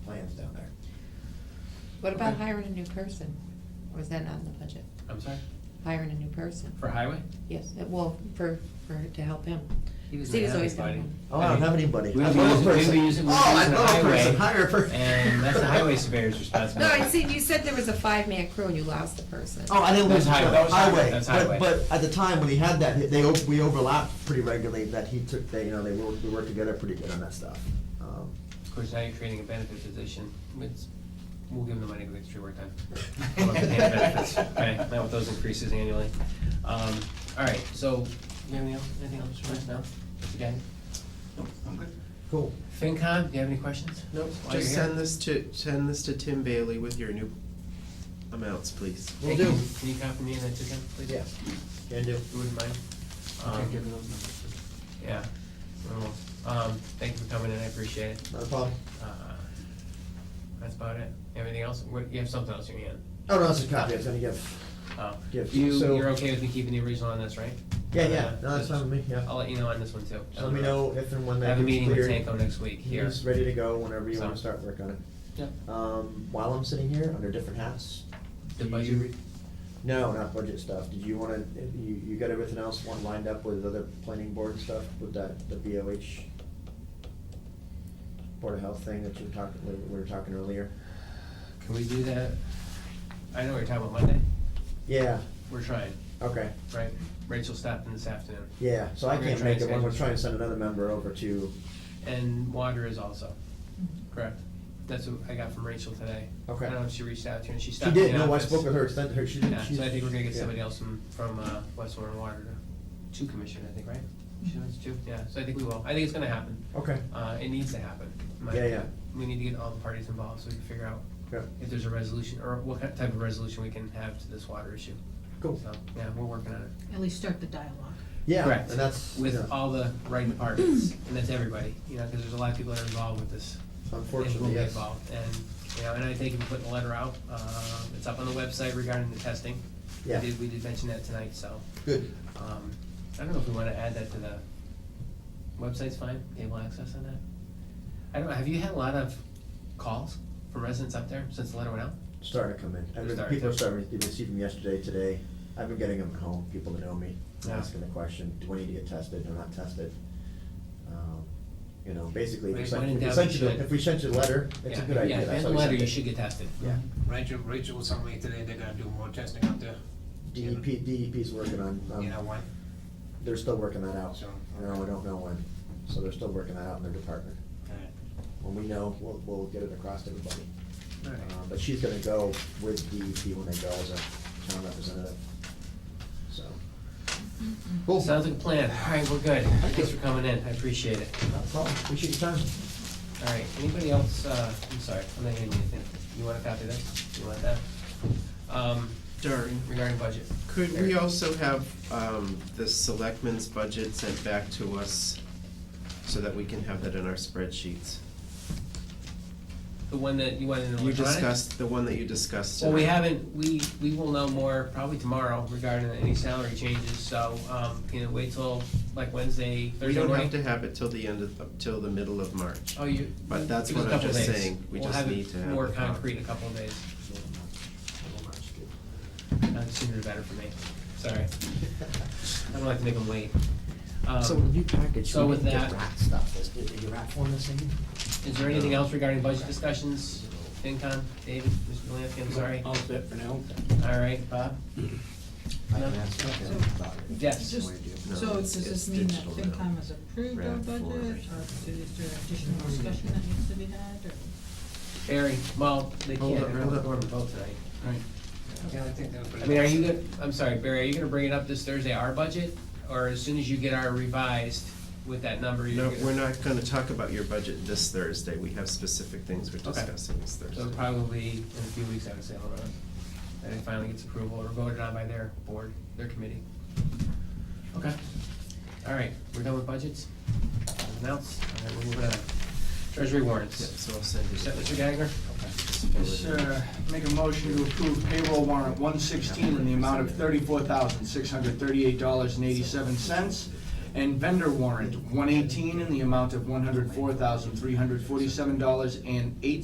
What about Okay. hiring a new person? Or is that not in the budget? I'm sorry, Hiring a new person? for highway? Yes, uh, well, for, for, to help him. He was Steve's without always got anybody. Oh, one. I don't have anybody. We I were love using- we were person. using- we were Oh, I using the love person, highway, hire a person. and that's the highway surveyor's No, responsibility. I see, you said there was a five-man crew and you lost a person. Oh, I didn't lose That's the highway. That was highway. highway, That's highway. but, but at the time when he had that, he- they, o- we overlapped pretty regularly, that he took, they, you know, they worked, we worked together pretty good on that stuff. Um, Of course, now you're creating a benefit position, it's, we'll give them the money with extra work time. We'll have to pay them benefits, Okay, not with those increases annually. Um, all right, so, you have any else- anything else for us now? Again, Cool. FinCom, do you have any questions? Nope, While you're just here. send this to, send this to Tim Bailey with your new amounts, please. Will Hey, do. Can you- can you copy me and that to him, please? Yeah. Can do. You wouldn't mind? Um, Yeah, I will. um, thank you for coming in, I appreciate it. Not a problem. Uh, That's about it. Anything else? What, you have something else in your hand? Oh, no, it's a copy, I was gonna give. Oh. Yeah, You, so- you're okay with me keeping the original on this, right? Yeah, Uh, yeah, no, that's fine with me, yeah. I'll let you know on this one too. So let me know if and when I that have a gets meeting with cleared. Tanko next week here. He's ready to go whenever you So- wanna start work on it. Yep. Um, while I'm sitting here, under different hats. The do budget you- re- No, not budget stuff. Did you wanna, you, you got everything else one lined up with other planning board stuff with that, the BOH? Board of Health thing that you talked, we we were talking earlier? Can we do that? I know we're talking about Monday. Yeah, We're trying, okay, right? Rachel stopped in this afternoon. yeah, so I We're gonna can't try make and it, one. we're schedule- trying to send another member over to, And water is also, correct? That's what I got from Rachel today. Okay. I don't know if she reached out to you and she she stopped in the did, no, I office. spoke with her, extended her, she did. Yeah, she- so I think we're gonna get yeah. somebody else from, from, uh, West Warren Water to, to commission, I think, right? She wants to, yeah, so I think we will. I think it's gonna happen. Mm-hmm. Okay, Uh, it needs to happen. in my Yeah, yeah. opinion. We need to get all the parties involved so we can figure out yeah, if there's a resolution, or what kind- type of resolution we can have to this water issue. cool. So, yeah, we're working on it. At least start the dialogue. Yeah, Correct. and that's, you With know, all the right departments, and that's everybody, you know, because there's a lot of people that are involved with this. and will unfortunately, be yes. involved. And, you know, and I think if we put the letter out, uh, it's up on the website regarding the testing. We Yeah. did, we did mention that tonight, so, Good. um, I don't know if we wanna add that to the, website's fine, cable access on that? I don't know, have you had a lot of calls from residents up there since the letter went out? Starting to come in. I've been, Starting people to- are starting, you received them yesterday, today. I've been getting them at home, people that know me, Yeah. asking the question, do I need to get tested or not tested? Um, You know, basically, if we Right, sent when in if we doubt, sent you you, the- should. if we sent you a letter, it's a Yeah, good idea. Yeah, if That's you why had we a letter, sent you it. should get tested. Yeah, Rachel, Rachel was telling me today they're gonna do more testing out there, DEP, DEP's E working on, you know, um, one, they're still working that out. so. No, I don't know when, so they're still working that out in their department. alright. When we know, we'll, we'll get it across to everybody. All right. Uh, But she's gonna go with DEP when they go as a town representative, so. Cool. Sounds like a plan, all right, we're good, thanks for coming in, I appreciate it. Not a problem, appreciate your time. All right, anybody else, uh, I'm sorry, I'm not hearing anything. You want a copy of this? You want that? Um, Darn. regarding budget. Could we also have um, the selectmen's budget sent back to us so that we can have that in our spreadsheets? The one that you wanted in You electronic? discussed, the one that you discussed Well, we tonight. haven't, we, we will know more probably tomorrow regarding any salary changes, so, um, can it wait till like Wednesday, We Thursday don't have morning? to have it till the end of, up till the middle of March. Oh, you. But that's give us what a I'm couple just days. saying, we just need to have We'll have it more the con- concrete in a couple of days, Uh, sooner the better for me, sorry, I don't like to make them wait. Um, So when you package, so we with can get that- rat stuff, is, is your rat form the same? Is there anything else regarding budget discussions? FinCon, David, Mr. Delansky, I'm sorry. All set for now. All right, Bob? I can No. ask Kevin So- about it. Yes. Just- No, So does it's- it's this mean that digital now. FinCom has approved our Round four. budget, or is there additional discussion that needs to be had, or? Barry, well, they Hold can't, up, they're hold not up. going to vote tonight. Yeah, I think they'll put it. I mean, are you, gonna- I'm sorry, Barry, are you gonna bring it up this Thursday, our budget? Or as soon as you get our revised with that number, you're No, gonna? we're not gonna talk about your budget this Thursday, we have specific things we're Okay. discussing this So Thursday. probably in a few weeks, I would say, I'll run it. And it finally gets approval or voted on by their board, their committee. Okay. All right, we're done with budgets? Nothing else? All right, we're moving on. Treasury Yeah, warrants. so I'll send you. Is that Mr. Gagner? Yes, uh, Make a motion to approve payroll warrant 116 in the amount of $34,638.87 and vendor warrant 118 in the amount of $104,347.08